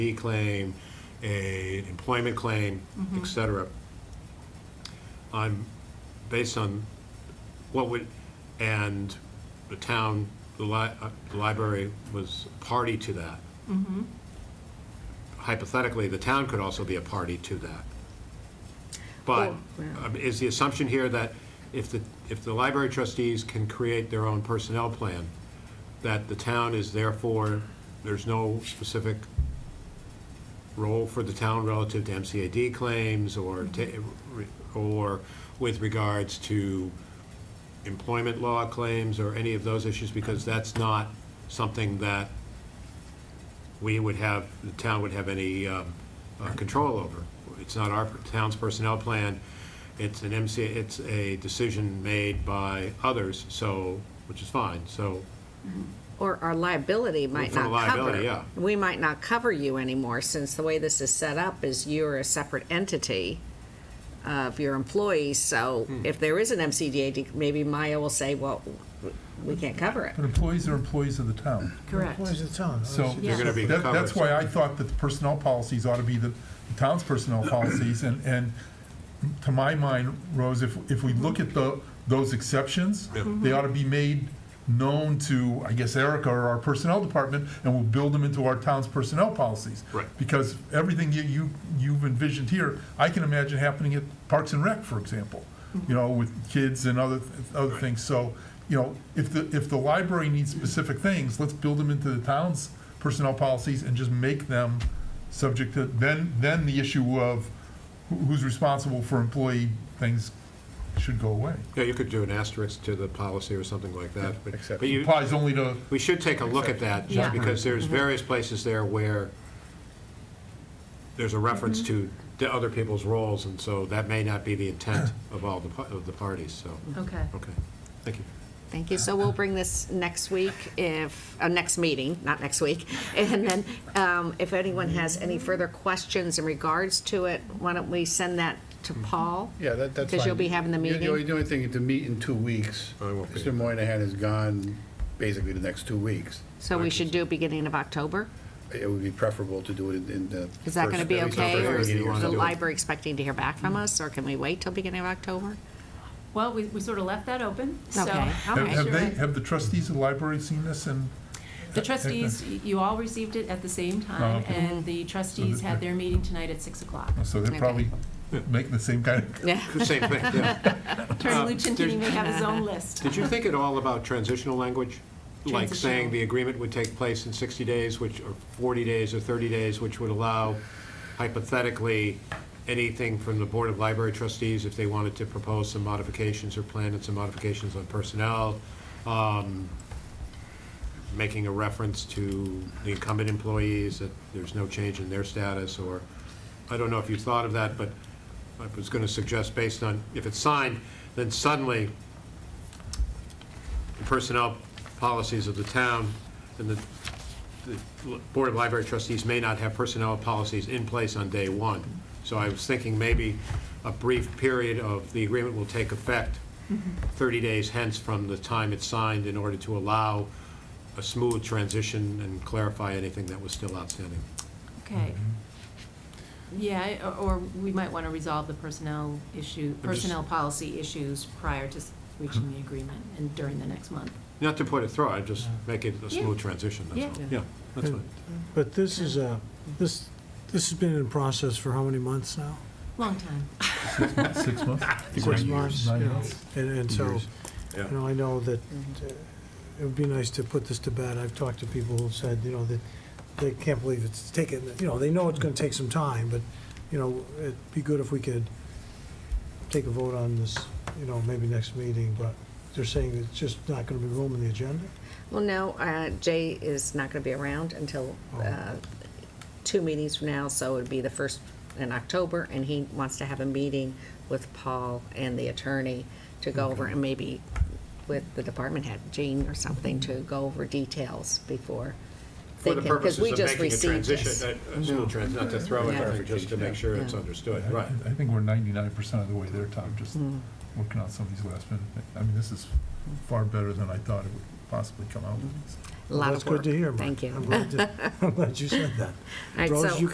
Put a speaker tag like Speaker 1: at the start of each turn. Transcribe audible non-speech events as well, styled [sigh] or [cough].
Speaker 1: D claim, a employment claim, et cetera. I'm, based on what would, and the town, the li, uh, the library was party to that. Hypothetically, the town could also be a party to that. But
Speaker 2: Oh, wow.
Speaker 1: um, is the assumption here that if the, if the library trustees can create their own personnel plan, that the town is therefore, there's no specific role for the town relative to MCAD claims or, ta- or with regards to employment law claims or any of those issues? Because that's not something that we would have, the town would have any um, uh, control over. It's not our town's personnel plan, it's an MC, it's a decision made by others, so, which is fine, so,
Speaker 2: Or our liability might
Speaker 1: For the
Speaker 2: not cover.
Speaker 1: liability, yeah.
Speaker 2: We might not cover you anymore, since the way this is set up is you're a separate entity of your employees, so
Speaker 1: Hmm.
Speaker 2: if there is an MCDAD, maybe Maya will say, well, we can't cover it.
Speaker 3: But employees are employees of the town.
Speaker 4: Correct.
Speaker 5: Employees of the town.
Speaker 3: So
Speaker 4: They're
Speaker 1: gonna be
Speaker 3: that- that's
Speaker 1: covered.
Speaker 3: why I thought that the personnel policies ought to be the the town's personnel policies. And, and to my mind, Rose, if, if we look at the, those exceptions, they ought to be made known to, I guess, Erica or our personnel department, and we'll build them into our town's personnel policies.
Speaker 1: Right.
Speaker 3: Because everything you, you, you've envisioned here, I can imagine happening at Parks and Rec, for example, you know, with kids and other, other things. So, you know, if the, if the library needs specific things, let's build them into the town's personnel policies and just make them subject to, then, then the issue of who- who's responsible for employee things should go away.
Speaker 1: yeah, you could do an asterisk to the policy or something like that. but-
Speaker 3: Except-
Speaker 1: But you,
Speaker 3: Applies only to,
Speaker 1: we should take a look at that, just
Speaker 4: Yeah.
Speaker 1: because there's various places there where there's a reference to the other people's roles, and so that may not be the intent of all the, pa- of the parties, so,
Speaker 4: Okay.
Speaker 1: okay, thank you.
Speaker 2: Thank you, so we'll bring this next week if, uh, next meeting, not next week. [laughs] And then, um, if anyone has any further questions in regards to it, why don't we send that to
Speaker 1: Mm-hmm.
Speaker 2: Paul?
Speaker 6: Yeah, that, that's fine.
Speaker 2: Because you'll be having the
Speaker 6: Yeah,
Speaker 2: meeting?
Speaker 6: only- The only thing, is to meet in two weeks.
Speaker 1: I won't be.
Speaker 6: Mr. Moynihan is gone basically the next two weeks.
Speaker 2: So we should do it beginning of October?
Speaker 6: It would be preferable to do it in- in the.
Speaker 2: Is that going to
Speaker 6: first-
Speaker 2: be
Speaker 6: at least the
Speaker 2: okay,
Speaker 6: first
Speaker 2: or is
Speaker 6: beginning of
Speaker 2: the
Speaker 1: do it.
Speaker 2: library expecting to hear back from us, or can we wait till beginning of October?
Speaker 4: Well, we, we sort of left that open, so.
Speaker 2: Okay, all
Speaker 3: have
Speaker 2: right.
Speaker 3: have they, have the trustees of the library seen this and?
Speaker 4: The trustees, y- you all received it at the same
Speaker 3: Oh,
Speaker 4: time,
Speaker 3: okay. Mm-hmm.
Speaker 4: and the trustees had their meeting tonight at 6 o'clock.
Speaker 3: So they're probably making the same kind of
Speaker 2: Yeah,
Speaker 1: Same thing, yeah.
Speaker 3: Uh,
Speaker 4: Attorney Lucientini may have his own
Speaker 3: [laughs]
Speaker 4: list.
Speaker 1: Did you think at all about transitional language? Like saying
Speaker 4: Transitional.
Speaker 1: the agreement would take place in 60 days, which, or 40 days, or 30 days, which would allow hypothetically anything from the Board of Library Trustees if they wanted to propose some modifications or plan and some modifications on personnel, um, making a reference to the incumbent employees, that there's no change in their status, or, I don't know if you thought of that, but I was going to suggest based on, if it's signed, then suddenly the personnel policies of the town, and the, the Board of Library Trustees may not have personnel policies in place on day one. So I was thinking maybe a brief period of, the agreement will take effect 30 days hence from the time it's signed in order to allow a smooth transition and clarify anything that was still outstanding.
Speaker 4: Okay. Yeah, I- or or we might want to resolve the personnel issue,
Speaker 1: I'm just-
Speaker 4: personnel policy issues prior to s- reaching the agreement and during the next month.
Speaker 1: Not to put it through, I just make it a
Speaker 4: Yeah.
Speaker 1: smooth transition, that's all.
Speaker 4: Yeah.
Speaker 1: Yeah, that's fine.
Speaker 5: But this is a, this, this has been in process for how many months now?
Speaker 4: Long time.
Speaker 3: six months? [laughs]
Speaker 5: Six months,
Speaker 3: Nine
Speaker 5: you know,
Speaker 3: months.
Speaker 5: and, and so,
Speaker 1: Yeah.
Speaker 5: you know, I know that
Speaker 2: Mm-hmm.
Speaker 5: uh, it would be nice to put this to bed. I've talked to people who said, you know, that they can't believe it's taken, you know, they know it's gonna take some time, but, you know, it'd be good if we could take a vote on this, you know, maybe next meeting, but they're saying it's just not gonna be room in the agenda?
Speaker 2: well, no, uh, Jay is not going to be around until
Speaker 1: Oh.
Speaker 2: uh, two meetings from now, so it'd be the first in October, and he wants to have a meeting with Paul and the attorney to go over, and maybe with the department head, Jean or something, to go over details before they
Speaker 1: For the
Speaker 2: can, because
Speaker 1: purposes
Speaker 2: we
Speaker 1: of
Speaker 2: just
Speaker 1: making a
Speaker 2: received this.
Speaker 1: transition, a- a smooth transition, not to throw
Speaker 2: Yeah.
Speaker 1: anything, just to make sure it's
Speaker 2: Yeah.
Speaker 1: understood,
Speaker 3: I-
Speaker 1: right.
Speaker 3: I think we're ninety-nine percent of the way
Speaker 5: Hmm.
Speaker 3: there, Tom, just working on some of these last minute, thi- I mean, this is far better than I thought it would possibly
Speaker 5: Hmm.
Speaker 3: come out with these.
Speaker 2: a lot
Speaker 5: That's
Speaker 2: of work.
Speaker 5: good to [laughs] hear, Mark.
Speaker 2: Thank you.
Speaker 5: I'm glad to- I'm glad you said that.
Speaker 2: right,
Speaker 5: Rose,
Speaker 2: so-
Speaker 5: you